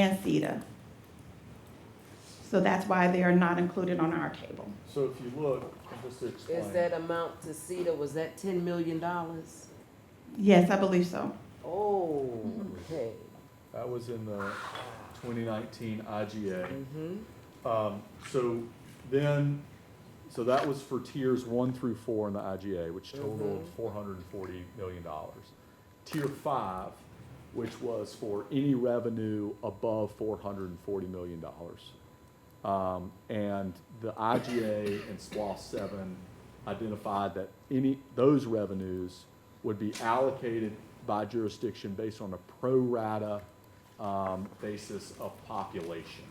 and CETA. So that's why they are not included on our table. So if you look, just to explain. Is that amount to CETA, was that ten million dollars? Yes, I believe so. Oh, okay. That was in the twenty nineteen IGA. Mm-hmm. Um, so then, so that was for tiers one through four in the IGA, which totaled Mhm. four hundred and forty million dollars. Tier five, which was for any revenue above four hundred and forty million dollars. Um, and the IGA and SWA seven identified that any, those revenues would be allocated by jurisdiction based on a pro rata, um, basis of population.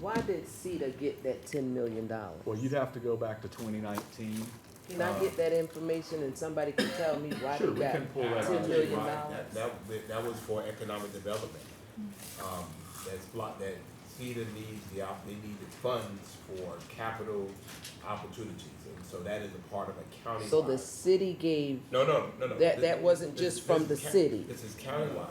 Why did CETA get that ten million dollars? Well, you'd have to go back to twenty nineteen. Can I get that information and somebody can tell me why they Sure, we got can pull that ten out. million Right, dollars? That, that, wa- that was for economic development. Um, that's block, that CETA needs the, op- they need the funds for capital opportunities, and so that is a part of a county. So the city gave No, no, no, That- no. This- that wasn't this- just from this is the ca- city. This is countywide.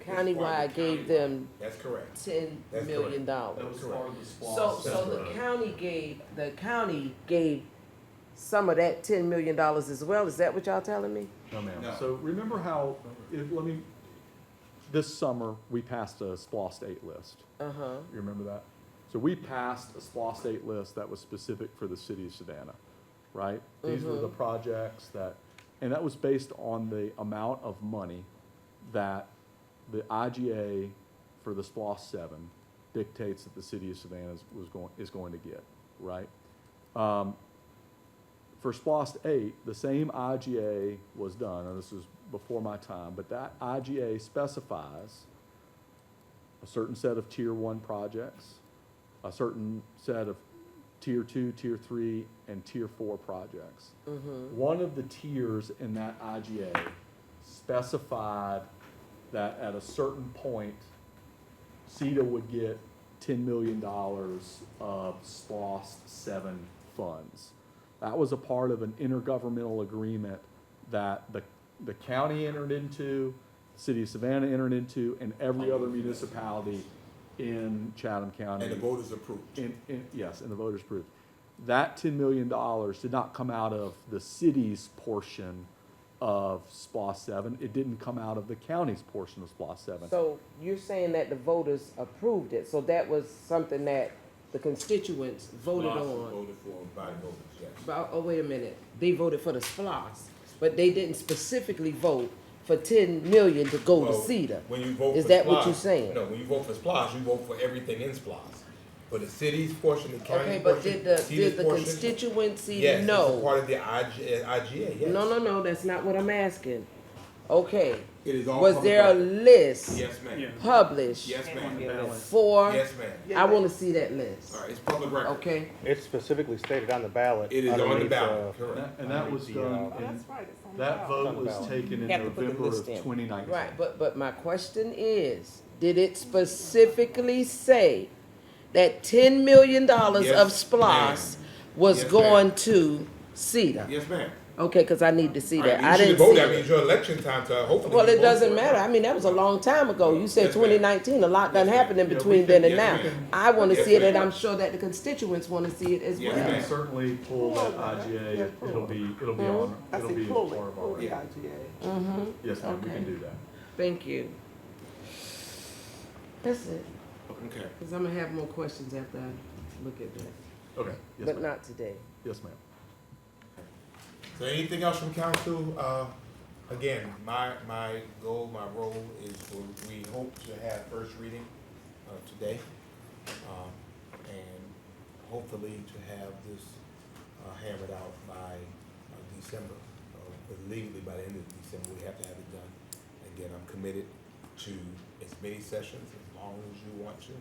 Countywide gave them That's correct. ten That's million dollars. That's correct. So, so the That's right. county gave, the county gave some of that ten million dollars as well, is that what y'all telling me? No, ma'am. No. So remember how, it, let me, this summer, we passed a SPLOST state list. Uh-huh, You remember that? So we passed a SPLOST state list that was specific for the city of Savannah, right? These were the projects that, and that was based on the amount of money that the IGA for the SPLOST seven dictates that the city of Savannah is- was going, is going to get, right? Um, for SPLOST eight, the same IGA was done, and this was before my time, but that IGA specifies a certain set of tier one projects, a certain set of tier two, tier three, and tier four projects. One of the tiers in that IGA specified that at a certain point, CETA would get ten million dollars of SPOS seven funds. That was a part of an intergovernmental agreement that the, the county entered into, the city of Savannah entered into, and every other municipality in Chatham County. And the voters approved. In, in, yes, and the voters approved. That ten million dollars did not come out of the city's portion of SPOS seven. It didn't come out of the county's portion of SPOS seven. so you're saying that the voters approved it, so that was something that the constituents voted Lots on. Voted for by voters, yes. But, oh, wait a minute, they voted for the SPOS, but they didn't specifically vote for ten million to go to Well, CETA. When you vote for. Is that what SPLOST- you're saying? No, when you vote for SPOS, you vote for everything in SPOS. For the city's portion, the county's Okay, portion. but did the, city's did the portion- constituency Yes, it's a know? part of the uh, IG, IGA, yes. No, no, no, that's not what I'm asking. Okay, It is all. was public there a record. list Yes, ma'am. published Yes, ma'am. for? Yes, ma'am. I wanna see that list, All right, it's public record. okay? It's specifically stated on the ballot. It is on the underneath, ballot, uh, And correct. that- And that was done, Oh, in- right, it's on that vote Talking was about- taken in Have to put the November of list in. twenty nineteen. Right, but, but my question is, did it specifically say that ten million dollars of Yes, SPOS was Yes, going to CETA? Yes, ma'am. Okay, cause I need to see All that, right, you I should didn't vote. see That means it. your election time, so hopefully. Well, you it vote doesn't for matter, I mean, that was a long time ago, you said Yes, ma'am. twenty nineteen, a lot done Yes, ma'am. happened in Yeah, we between can- then and now. yes, ma'am. I wanna Yes, see it, and ma'am. I'm sure that the constituents wanna see it as Yes, You can well. ma'am. certainly pull that IGA, Yeah, it'll be, it'll be on, I it'll be see as pull part it, of our. pull the record. IGA. Mm-hmm, Yes, ma'am, we Okay. can do that. thank you. That's it, Okay, cause I'm gonna have more questions after I look at that, Okay, yes, but ma'am, not today. yes, ma'am. so anything else from council? Uh, again, my, my goal, my role is for- we hope to have first reading, uh, today. Um, and hopefully to have this, uh, hammered out by, uh, December. uh, but Legally, by the end of December, we have to have it done. Again, I'm committed to as many sessions, as long as you want to.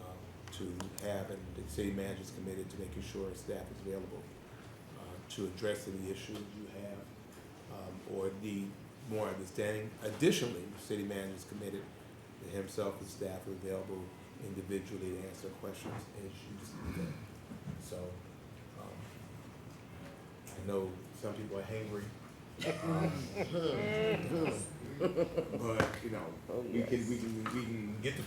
um, to have, and the city manager's committed to making sure staff is available uh, to address any issues you have um, or need more understanding. Additionally, the city manager's committed that himself and staff are available individually to answer questions as you see them. So, um, I know some people are hangry. um, But, you know, we can, we can, we can get the